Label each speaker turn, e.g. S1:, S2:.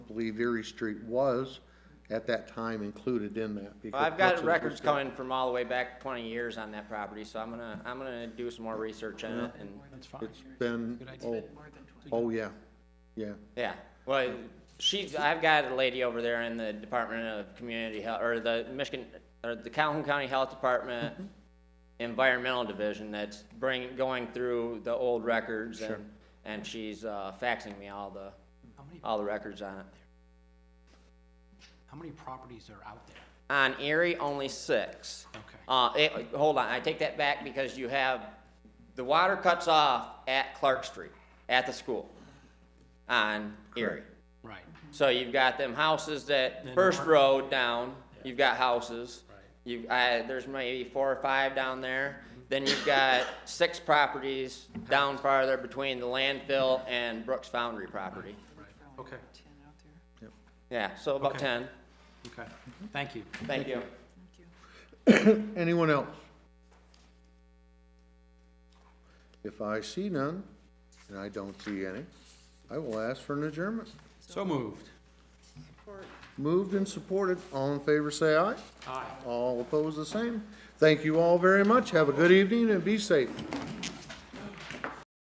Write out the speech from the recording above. S1: believe Erie Street was at that time included in that. because
S2: Well, I've got
S1: Hudson's
S2: records
S1: was-
S2: coming from all the way back twenty years on that property, so I'm gonna, I'm gonna do some more research on it and,
S3: That's fine.
S1: It's been, oh, oh, yeah, yeah.
S2: yeah. Well, she's, I've got a lady over there in the Department of Community Health, or the Michigan, or the Calhoun County Health Department Environmental Division that's bring, going through the old records and, and she's, uh, faxing me all the,
S3: How many,
S2: all the records on it.
S3: how many properties are out there?
S2: On Erie, only six.
S3: Okay.
S2: Uh, it, hold on, I take that back because you have, the water cuts off at Clark Street, at the school, on Erie.
S3: Right,
S2: So you've got them houses that,
S3: Then
S2: first
S3: Mark-
S2: road down, you've got houses.
S3: Right.
S2: You, I, there's maybe four or five down there.
S3: Mm-hmm.
S2: Then you've got six properties down farther between the landfill and Brooks Foundry property.
S3: right, okay,
S2: Yeah, so about
S3: Okay.
S2: ten.
S3: okay. Thank you.
S2: Thank you.
S1: Anyone else? If I see none, and I don't see any, I will ask for an adjournment.
S3: So moved.
S1: Moved and supported, all in favor say aye.
S3: Aye.
S1: All opposed the same. Thank you all very much, have a good evening and be safe.